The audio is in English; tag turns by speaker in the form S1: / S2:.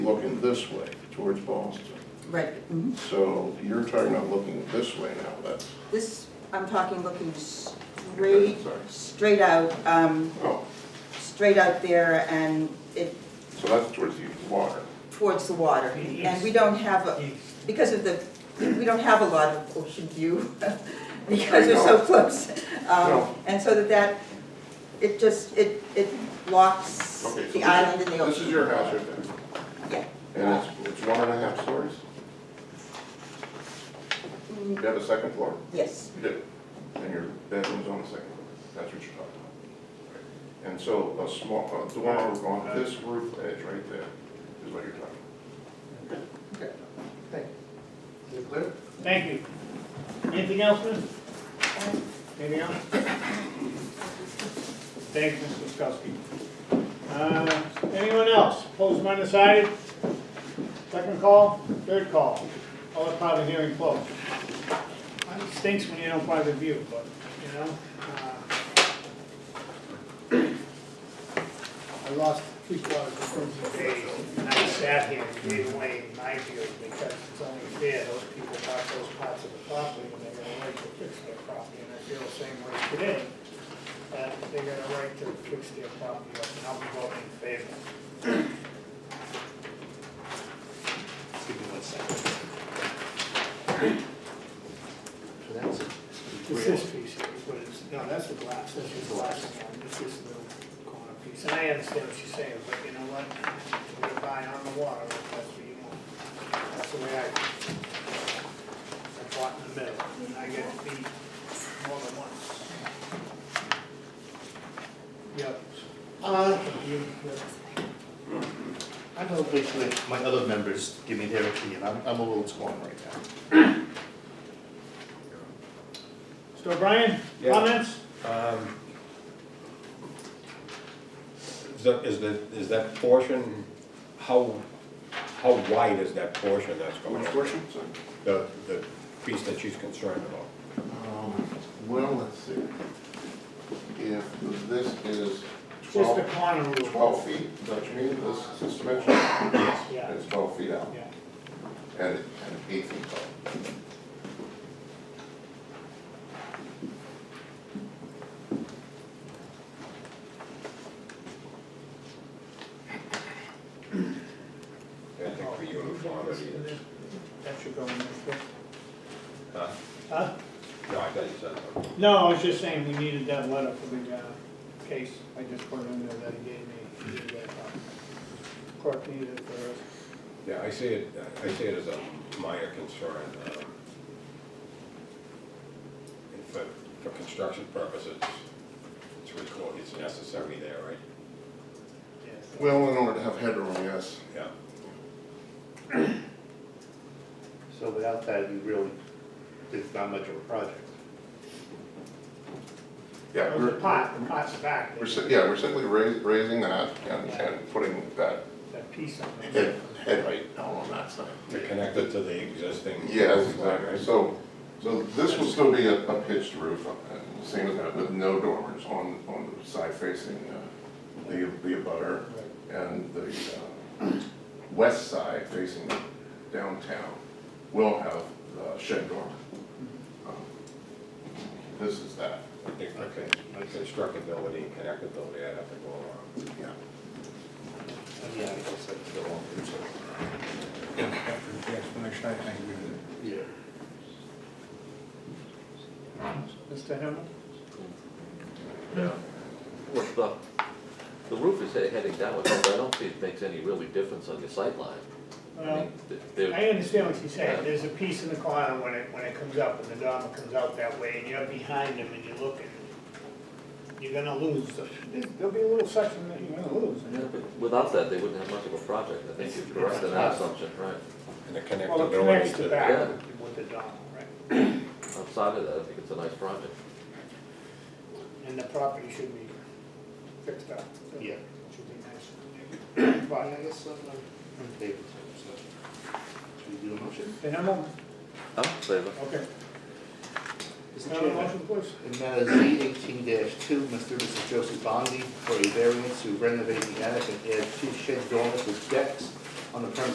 S1: this way towards Boston.
S2: Right,
S1: Mm-hmm.
S2: mhm.
S1: So you're talking about looking this way now, that's,
S2: this, I'm talking looking straight,
S1: Okay, sorry.
S2: straight out, um,
S1: oh,
S2: straight out there and it
S1: so that's towards the water.
S2: towards the water. And
S3: Yes.
S2: we don't have, a because of the, we don't have a lot of ocean view because we're so
S1: No.
S2: close. Um,
S1: No.
S2: And so that that, it just, it, it blocks
S1: Okay, so
S2: the
S1: this-
S2: island and the
S1: This is
S2: ocean.
S1: your house right there,
S2: Yeah.
S1: and it's, it's one and a half stories? You
S2: Mm,
S1: have a second floor?
S2: Yes,
S1: You do. And your bedroom's on the second floor, that's what you're talking about. And so a small, a dormer on this roof edge right there is what you're talking about.
S4: Okay, thank you. Is it clear?
S3: Thank you. Anything else, Mr.? Anything else? Thank you, Mr. Wiskowski. Uh, Anyone else? Opposed, or undecided? Second call, third call. All the public hearing closed. Uh, It stinks when you don't buy the view, but, you know. uh, I lost three quarters of the day, and I sat here and gave away my view because it's only fair, those people bought those parts of the property and they got a right to fix their property, and I feel the same way today. That they got a right to fix their property up, and I'll be voting in favor.
S5: Give me one second. So that's it.
S3: It's this piece here, is what it's, no, that's the glass, this is the last one, this is the little corner piece, and I understand what you're saying, but you know what? We're buying on the water, if that's what you want, that's the way I, I bought in the middle, and I get beat more than once. Yep,
S5: Uh,
S3: you, you-
S5: I'm gonna wait till my other members give me their opinion, I'm, I'm a little torn right now.
S3: so Brian,
S6: Yeah.
S3: comments?
S6: Um, Is that, is that, is that portion, how, how wide is that portion that's going on?
S1: portion?
S6: The, the piece that she's concerned about?
S1: Um, Well, let's see. If this is
S3: Just the
S1: twelve,
S3: corner roof.
S1: twelve feet, is that what you mean, this suspension?
S3: Yeah,
S1: It's twelve feet out
S3: yeah.
S1: and, and eight feet tall.
S6: I think for uniformity, it's-
S3: That should go in this way.
S6: huh?
S3: Huh?
S6: No, I thought you said that.
S3: No, I was just saying, we needed that letter for the, uh, case, I just put it in there that he gave me, he gave that, uh, clerk needed it for us.
S6: Yeah, I see it, I see it as a minor concern. um, and For, for construction purposes, it's required, it's necessary there, right?
S3: Yes.
S1: Well, in order to have headroom, yes.
S6: Yeah.
S5: So without that, you really, it's not much of a project.
S1: Yeah,
S3: The
S1: we're,
S3: pot, the pot's back,
S1: we're, si- yeah, we're simply raising, raising that and, and putting that
S3: that piece on
S1: head,
S3: there.
S1: head height down on that side.
S6: To connect it to the existing.
S1: Yes,
S6: Right,
S1: exactly.
S6: right.
S1: So, so this will still be a a pitched roof, uh, same as that, with no dormers on, on the side facing uh, the, the abutter and the uh, west side facing downtown will have uh, shed dormer. Um, This is that,
S6: I think, okay, constructability, and connectability, I'd have to go along.
S1: yeah.
S5: Yeah, I guess that's the one.
S7: After the explanation, I think we did.
S5: Yeah.
S3: Mr. Himmel?
S8: Well, the, the roof is he- heading downward, but I don't see it makes any really difference on your sightline. I
S3: Well,
S8: mean, th- there-
S3: I understand what you're saying, there's a piece in the corner when it, when it comes up, and the dormer comes out that way, and you're behind him and you're looking. You're gonna lose, there'll be a little section that you're gonna lose.
S8: yeah, but Without that, they wouldn't have much of a project, I think you're correct in that assumption, right?
S6: And the
S3: Well, it connects
S6: connectability to
S3: the
S6: the,
S3: back
S8: Yeah.
S3: with the dormer, right?
S8: Outside of that, I think it's a nice project.
S3: And the property should be fixed up.
S5: Yeah.
S3: Should be nice.
S5: I
S3: But,
S5: guess I'm, I'm in favor, so. Should we do a motion?
S3: and I'm, on-
S8: I'm in favor.
S3: okay,
S5: Mr.
S3: now the
S5: Chairman.
S3: motion, please.
S5: In matter Z eighteen two, Mr. and Mrs. Joseph Bondi for a variance to renovate the attic and add two shed dormers with decks on the premise